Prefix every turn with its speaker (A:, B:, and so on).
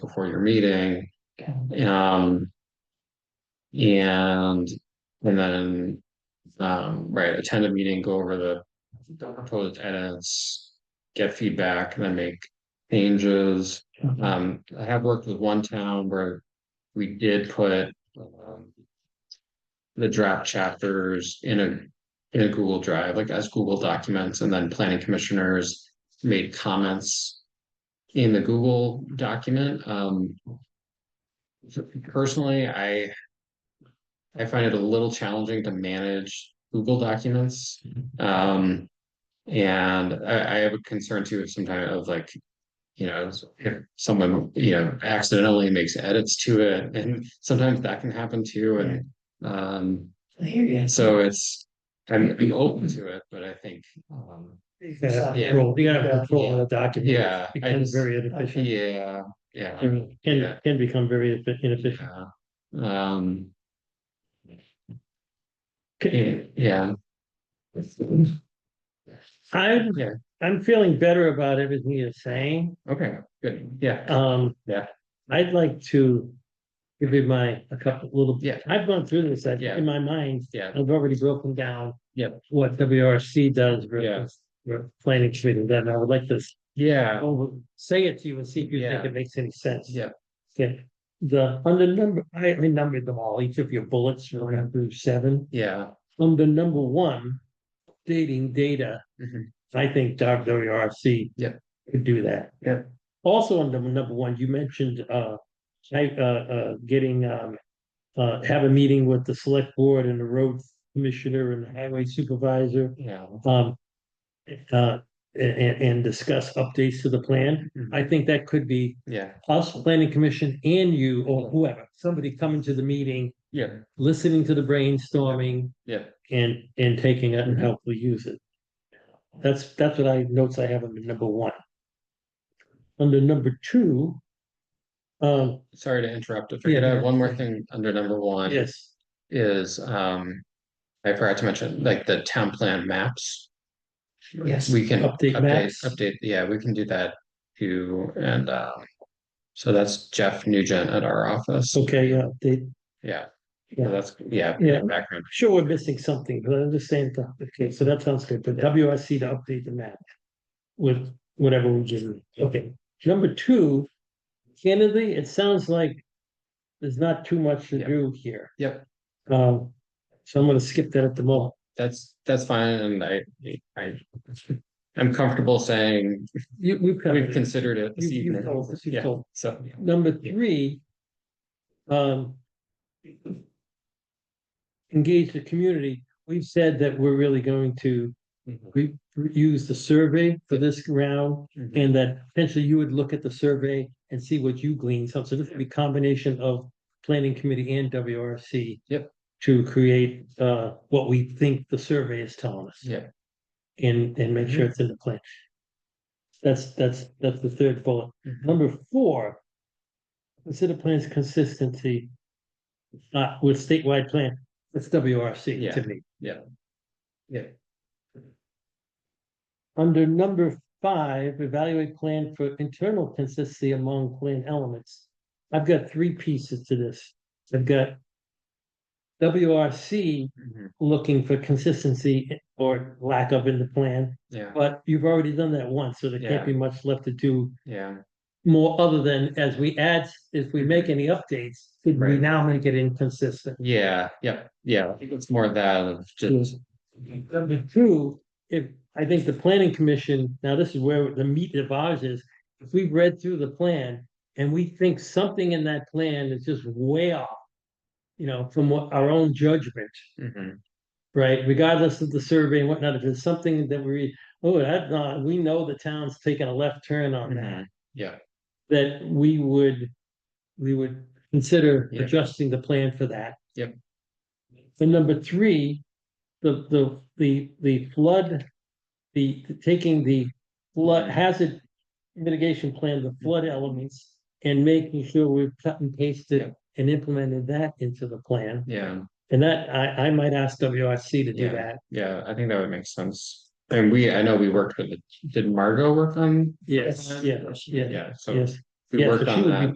A: before your meeting. Um. And, and then, um, right, attend a meeting, go over the, the proposed edits. Get feedback and then make changes.
B: Uh,
A: Um, I have worked with one town where we did put, um. The draft chapters in a, in a Google Drive, like as Google documents, and then planning commissioners made comments. In the Google document, um, personally, I. I find it a little challenging to manage Google documents. Um, and I, I have a concern too of sometimes of like. You know, if someone, you know, accidentally makes edits to it, and sometimes that can happen too, and, um,
B: I hear you.
A: so it's. I'm, I'm open to it, but I think, um,
B: You gotta have
A: Yeah.
B: control, you gotta have control of
A: Yeah.
B: the document.
A: uh, yeah. I
B: Becomes
A: just-
B: very inefficient,
A: Yeah, yeah.
B: can,
A: Yeah.
B: can become very effi- inefficient.
A: Yeah. Um,
B: Okay.
A: yeah.
B: I'm,
A: Yeah.
B: I'm feeling better about everything you're saying.
A: Okay, good. Yeah,
B: Um.
A: Yeah.
B: I'd like to give you my, a couple little.
A: Yeah.
B: I've gone through this, I've,
A: Yeah.
B: in my mind,
A: yeah,
B: I've already broken down.
A: Yep.
B: What WRC does versus, ver- planning committee, then I would like to
A: yeah,
B: over, Oh, say it to you and see if you think
A: Yeah.
B: it makes any sense.
A: yeah,
B: Yeah, the, under number, I I numbered them all, each of your bullets, you're going through seven,
A: yeah,
B: under number one, dating data.
A: Mhm.
B: I think W R C.
A: Yeah.
B: Could do that.
A: Yeah.
B: Also under number one, you mentioned, uh, I, uh, uh, getting, um, uh, have a meeting with the select board and the road commissioner and highway supervisor,
A: yeah.
B: um. Uh, and, and discuss updates to the plan, I think that could be
A: Yeah,
B: us, planning commission and you or whoever, somebody coming to the meeting,
A: yeah,
B: listening to the brainstorming
A: yeah,
B: and, and taking it and helpfully use it. That's, that's what I, notes I have under number one. Under number two, um,
A: sorry to interrupt. If I could add one more thing under number one.
B: yes,
A: Is, um, I forgot to mention, like the town plan maps.
B: Yes.
A: We can
B: Update
A: update,
B: maps.
A: update, yeah, we can do that too, and, um. So that's Jeff Nugent at our office.
B: okay, yeah, they,
A: Yeah,
B: Yeah.
A: so that's, yeah,
B: Yeah.
A: background,
B: sure, we're missing something, but I understand that, okay, so that sounds good, but WRC to update the map. With whatever we give them, okay, number two, candidly, it sounds like. There's not too much to
A: Yeah.
B: do here.
A: Yep.
B: Um, so I'm gonna skip that at the moment,
A: that's, that's fine, and I, I. I'm comfortable saying
B: you, we've
A: we've
B: covered it.
A: considered it this
B: You- you
A: evening,
B: told us, you
A: yeah,
B: told.
A: so,
B: Number three. Um. Engage the community, we've said that we're really going to,
A: Mm-hmm.
B: we use the survey for this round.
A: Mhm.
B: And that potentially you would look at the survey and see what you glean, so so this would be a combination of planning committee and WRC.
A: Yep.
B: To create uh what we think the survey is telling us.
A: Yeah.
B: And and make sure it's in the plan. That's that's that's the third bullet.
A: Mhm.
B: Number four. Consider plans consistency. Uh with statewide plan, that's WRC
A: Yeah,
B: to me.
A: yeah, yeah.
B: Under number five, evaluate plan for internal consistency among plan elements. I've got three pieces to this. I've got. WRC
A: Mhm.
B: looking for consistency or lack of in the plan,
A: yeah,
B: but you've already done that once, so there can't be much left to do.
A: yeah,
B: More other than as we add, if we make any updates, could we
A: Right.
B: now make it inconsistent?
A: yeah, yep, yeah, I think it's more of that of just,
B: Number two, if, I think the planning commission, now this is where the meat of ours is, if we've read through the plan and we think something in that plan is just way off. You know, from what our own judgment,
A: Mhm.
B: right, regardless of the survey and whatnot, if it's something that we, oh, that, uh, we know the town's taking a left turn on that.
A: Mhm. yeah,
B: That we would, we would consider
A: Yeah.
B: adjusting the plan for that.
A: Yep.
B: And number three, the, the, the, the flood, the, taking the flood hazard mitigation plan, the flood elements, and making sure we've cut and pasted and implemented that into the plan.
A: yeah,
B: And that, I, I might ask WRC to do
A: Yeah.
B: that.
A: yeah, I think that would make sense. And we, I know we worked with, the- did Margot work on?
B: Yes, yes, yes,
A: Yeah, so
B: yes.
A: we
B: Yes,
A: worked
B: but she
A: on
B: would be
A: that,